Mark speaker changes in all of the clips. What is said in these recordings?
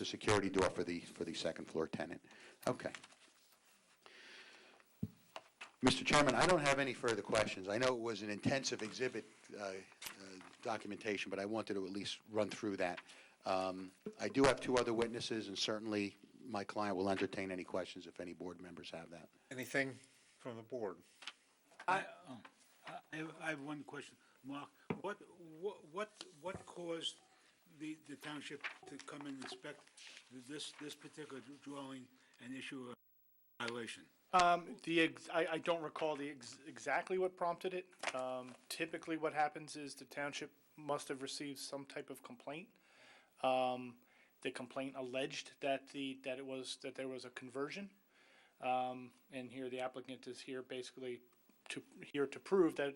Speaker 1: the security door for the, for the second floor tenant. Okay. Mr. Chairman, I don't have any further questions. I know it was an intensive exhibit uh, uh, documentation, but I wanted to at least run through that. Um, I do have two other witnesses, and certainly my client will entertain any questions if any board members have that.
Speaker 2: Anything from the board?
Speaker 3: uh,
Speaker 4: I, I have, I have one question, Mark. What, what, what, what caused the, the township to come and inspect this, this particular dwelling and issue a violation?
Speaker 3: Um, the, ex- I, I don't recall the, ex- exactly what prompted it. Um, typically what happens is the township must have received some type of complaint. Um, the complaint alleged that the, that it was, that there was a conversion. Um, and here the applicant is here basically to, here to prove that, you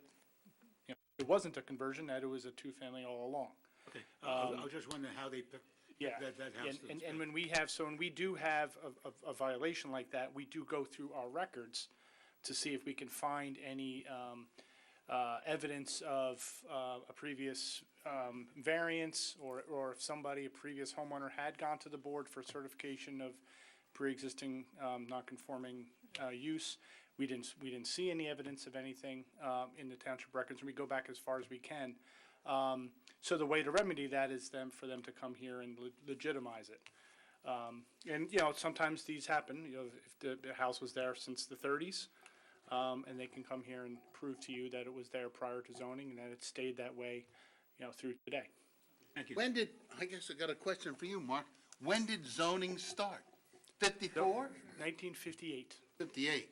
Speaker 3: know, it wasn't a conversion, that it was a two-family all along.
Speaker 4: Okay, I- I was- I was just wondering how they picked
Speaker 3: um, Yeah.
Speaker 4: that, that house.
Speaker 3: And,
Speaker 4: to
Speaker 3: and,
Speaker 4: inspect.
Speaker 3: and when we have, so when we do have a- a, a violation like that, we do go through our records to see if we can find any, um, uh, evidence of, uh, a previous, um, variance or, or if somebody, a previous homeowner had gone to the board for certification of pre-existing, um, non-conforming, uh, use. We didn't, we didn't see any evidence of anything, um, in the township records, and we go back as far as we can. Um, so the way to remedy that is them, for them to come here and le- legitimize it. Um, and, you know, sometimes these happen, you know, if the, the house was there since the thirties, um, and they can come here and prove to you that it was there prior to zoning and that it stayed that way, you know, through today.
Speaker 4: Thank you.
Speaker 5: When did, I guess I got a question for you, Mark. When did zoning start? Fifty-four?
Speaker 3: Nineteen fifty-eight.
Speaker 5: Fifty-eight?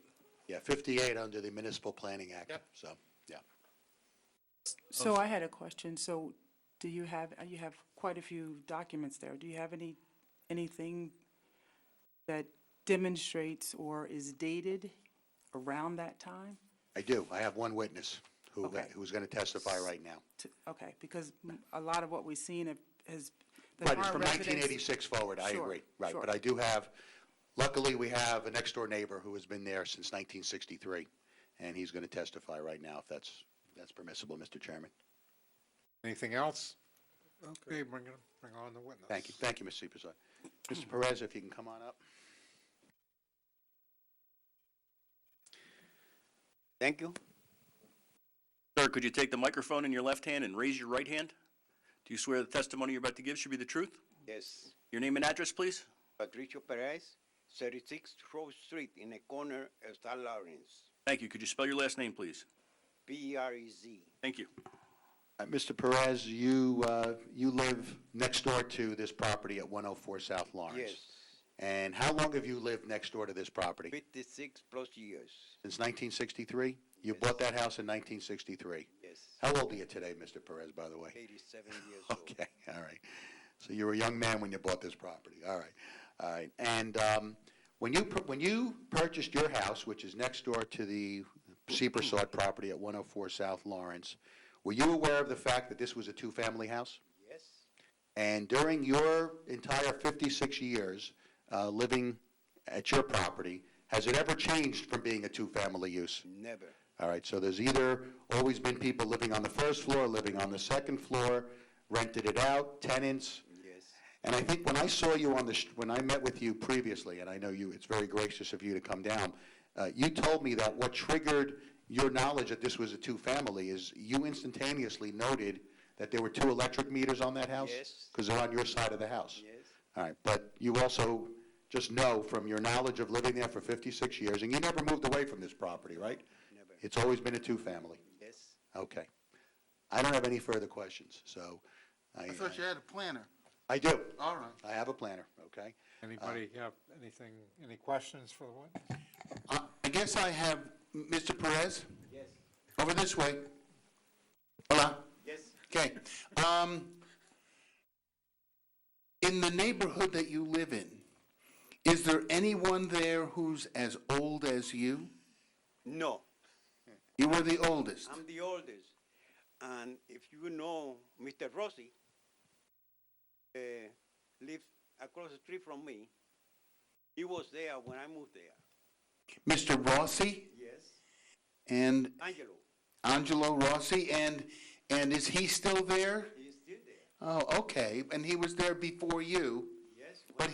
Speaker 1: Yeah, 58 under the Municipal Planning Act,
Speaker 5: Yep.
Speaker 1: so, yeah.
Speaker 6: So I had a question. So do you have, uh, you have quite a few documents there. Do you have any, anything that demonstrates or is dated around that time?
Speaker 1: I do. I have one witness who,
Speaker 6: Okay.
Speaker 1: who's going to testify right now.
Speaker 6: To- Okay, because m- a lot of what we've seen have- has, the
Speaker 1: Right, it's
Speaker 6: current
Speaker 1: from
Speaker 6: residents.
Speaker 1: 1986 forward, I
Speaker 6: Sure,
Speaker 1: agree, right, but
Speaker 6: sure.
Speaker 1: I do have, luckily, we have a next-door neighbor who has been there since 1963, and he's going to testify right now, if that's, that's permissible, Mr. Chairman.
Speaker 2: Anything else? Okay, bring it, bring on the witness.
Speaker 1: Thank you, thank you, Ms. Seepersod. Mr. Perez, if you can come on up.
Speaker 7: Thank you. Sir, could you take the microphone in your left hand and raise your right hand? Do you swear the testimony you're about to give should be the truth?
Speaker 8: Yes,
Speaker 7: Your name and address, please?
Speaker 8: Patricio Perez, 36 Rose Street, in the corner of San Lawrence, E
Speaker 7: Thank you. Could you spell your last name, please?
Speaker 8: P-E-R-E-Z.
Speaker 7: Thank you.
Speaker 1: Uh, Mr. Perez, you, uh, you live next door to this property at 104 South Lawrence?
Speaker 8: Yes,
Speaker 1: And how long have you lived next door to this property?
Speaker 8: 56 plus years,
Speaker 1: Since 1963? You bought that house in 1963?
Speaker 8: yes,
Speaker 1: How old are you today, Mr. Perez, by the way?
Speaker 8: 87 years old.
Speaker 1: Okay, all right. So you were a young man when you bought this property, all right, all right. And um, when you, pur- when you purchased your house, which is next door to the Seepersod property at 104 South Lawrence, were you aware of the fact that this was a two-family house?
Speaker 8: Yes,
Speaker 1: And during your entire 56 years uh, living at your property, has it ever changed from being a two-family use?
Speaker 8: never,
Speaker 1: All right, so there's either always been people living on the first floor, living on the second floor, rented it out, tenants.
Speaker 8: yes,
Speaker 1: And I think when I saw you on the, sh- when I met with you previously, and I know you, it's very gracious of you to come down, uh, you told me that what triggered your knowledge that this was a two-family is you instantaneously noted that there were two electric meters on that house?
Speaker 8: Yes.
Speaker 1: Because they're on your side of the house?
Speaker 8: yes,
Speaker 1: All right, but you also just know from your knowledge of living there for 56 years, and you never moved away from this property, right?
Speaker 8: Never.
Speaker 1: It's always been a two-family?
Speaker 8: yes.
Speaker 1: Okay. I don't have any further questions, so I,
Speaker 5: I thought you had a planner.
Speaker 1: I do.
Speaker 5: All right.
Speaker 1: I have a planner, okay?
Speaker 2: Anybody
Speaker 1: Uh,
Speaker 2: have anything, any questions for the witness?
Speaker 9: I guess I have Mr. Perez? Yes. Over this way. Hola? Yes. Okay. Um, in the neighborhood that you live in, is there anyone there who's as old as you?
Speaker 8: No,
Speaker 9: You were the oldest.
Speaker 8: I'm the oldest, and if you know Mr. Rossi, uh, lives across the street from me, he was there when I moved there.
Speaker 9: Mr. Rossi
Speaker 8: Yes.
Speaker 9: and
Speaker 8: Angelo,
Speaker 9: Angelo Rossi, and, and is he still there?
Speaker 8: he's still there,
Speaker 9: Oh, okay. And he was there before you.
Speaker 8: yes,
Speaker 1: But